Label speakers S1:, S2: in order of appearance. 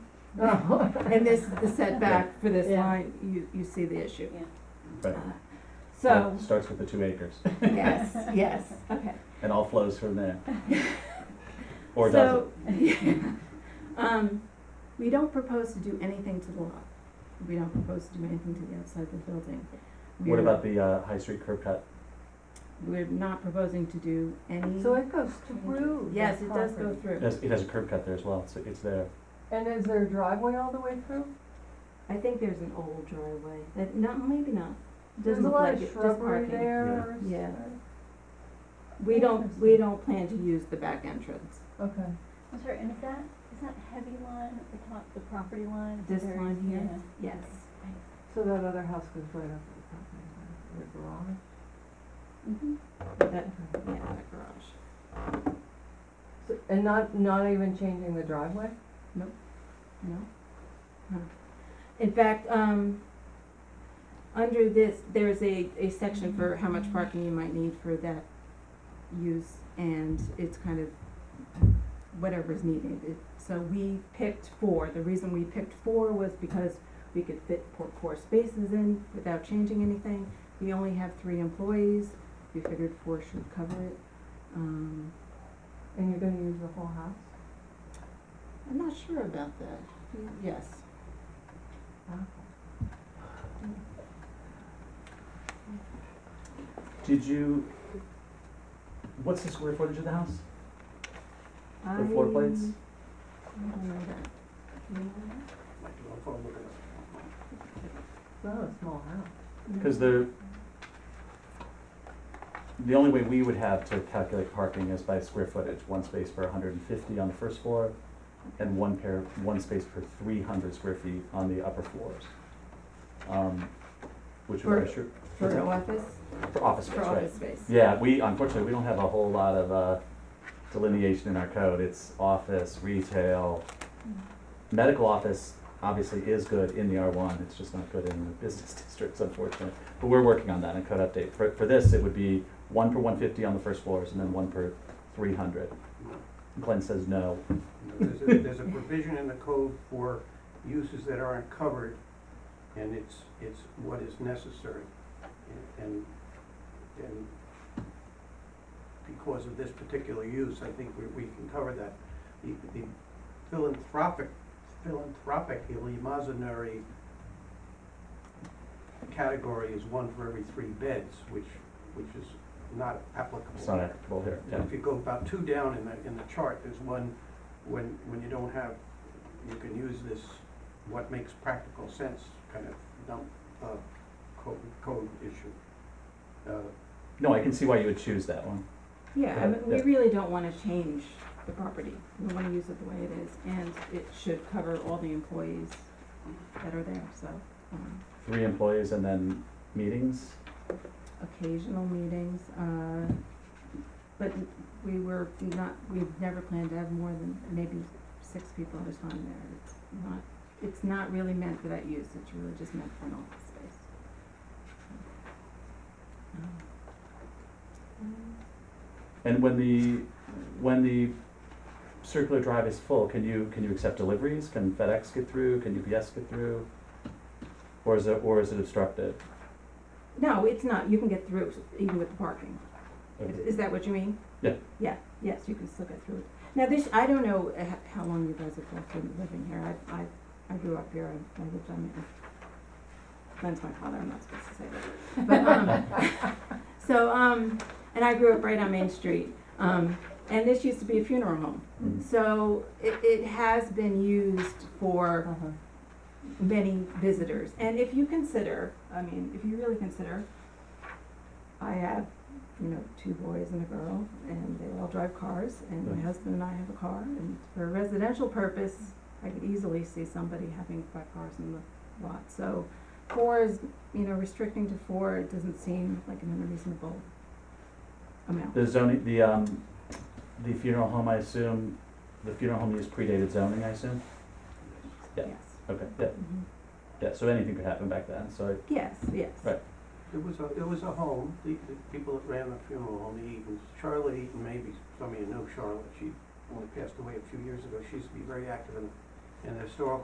S1: And this is the setback for this
S2: Yeah.
S1: line, you, you see the issue.
S3: Right.
S1: Uh,
S3: Well,
S1: So,
S3: it Starts with the two acres
S1: yes, yes, okay.
S3: and all flows from there. Or does it?
S1: So, Um, we don't propose to do anything to the lot. We don't propose to do anything to the outside of the building.
S3: What about the uh, High Street curb cut?
S1: We're not proposing to do any.
S2: So it goes through the
S1: Yes, it does go
S2: property.
S3: It
S1: through.
S3: has, it has a curb cut there as well, so it's there.
S2: And is there a driveway all the way through?
S1: I think there's an old driveway, that, no, maybe not.
S2: There's
S1: Doesn't
S2: a
S1: look
S2: lot
S1: like
S2: of
S1: it, just
S2: shrubbery
S1: parking.
S2: there.
S1: Yeah.
S2: or s-
S1: We don't, we don't plan to use the back entrance.
S2: Okay.
S4: I'm sorry, and is that, is that heavy line at the top, the property line? at the
S1: This
S4: very-
S1: line here?
S4: yeah.
S1: Yes.
S2: So that other house goes right up to the property line, the garage?
S4: Mhm.
S1: That, yeah, that garage.
S2: So- And not, not even changing the driveway?
S1: No? No. In fact, um, under this, there's a, a section for how much parking you might need for that use, and it's kind of whatever's needed. It- So we picked four, the reason we picked four was because we could fit four, four spaces in without changing anything. We only have three employees, we figured four should cover it. Um,
S2: And you're gonna use the whole house?
S1: I'm not sure about that, yes.
S3: Did you, what's the square footage of the house?
S1: The
S3: floor plates?
S1: I don't know that. You know
S2: It's not a small house.
S1: that?
S3: Because the, the only way we would have to calculate parking is by square footage, one space per hundred and fifty on the first floor, and one pair, one space per three hundred square feet on the upper floors. Um, Which
S1: For-
S3: would, assure-
S1: For office,
S3: for office space,
S1: for
S3: right?
S1: office space.
S3: Yeah, we, unfortunately, we don't have a whole lot of uh, delineation in our code. It's office, retail. Medical office obviously is good in the R1, it's just not good in the business districts, unfortunately. But we're working on that in code update. For, for this, it would be one per one fifty on the first floors and then one per three hundred. Glenn says no.
S5: There's a, there's a provision in the code for uses that aren't covered, and it's, it's what is necessary. And, and because of this particular use, I think we, we can cover that. The the philanthropic, philanthropically imaginary category is one for every three beds, which, which is not applicable.
S3: It's not applicable here, yeah.
S5: If you go about two down in the, in the chart, there's one, when, when you don't have, you can use this, what makes practical sense kind of dump, uh, code, code issue. Uh,
S3: No, I can see why you would choose that one.
S1: Yeah, I mean, we
S3: Yeah.
S1: really don't wanna change the property, we wanna use it the way it is, and it should cover all the employees that are there, so, um,
S3: Three employees and then meetings?
S1: occasional meetings, uh, but we were not, we've never planned to have more than maybe six people at a time there, it's not, it's not really meant for that use, it's really just meant for an office space. Um,
S3: And when the, when the circular drive is full, can you, can you accept deliveries? Can FedEx get through? Can UPS get through? Or is it, or is it obstructed?
S1: No, it's not, you can get through even with the parking. Is-
S3: Okay.
S1: Is that what you mean?
S3: Yeah.
S1: Yeah, yes, you can still get through it. Now, this, I don't know uh, ho- how long you guys have both been living here. I, I, I grew up here, I- I lived on it. Glenn's my father, I'm not supposed to say that. But, um, so, um, and I grew up right on Main Street. Um, and this used to be a funeral home.
S3: Mm.
S1: So it, it has been used for
S2: Uh-huh.
S1: many visitors. And if you consider, I mean, if you really consider, I have, you know, two boys and a girl, and they all drive cars, and my
S3: Nice.
S1: husband and I have a car, and for a residential purpose, I could easily see somebody having five cars in the lot, so four is, you know, restricting to four, it doesn't seem like an unreasonable amount.
S3: The zoning, the, um, the funeral home, I assume, the funeral home use predated zoning, I assume? Yeah.
S1: Yes.
S3: Okay, yeah,
S1: Mhm.
S3: yeah, so anything could happen back then, so, I-
S1: Yes, yes.
S3: Right.
S5: It was a, it was a home, the, the people that ran the funeral home, the Eatons, Charlotte Eaton, maybe some of you know Charlotte, she only passed away a few years ago, she used to be very active in, in the historical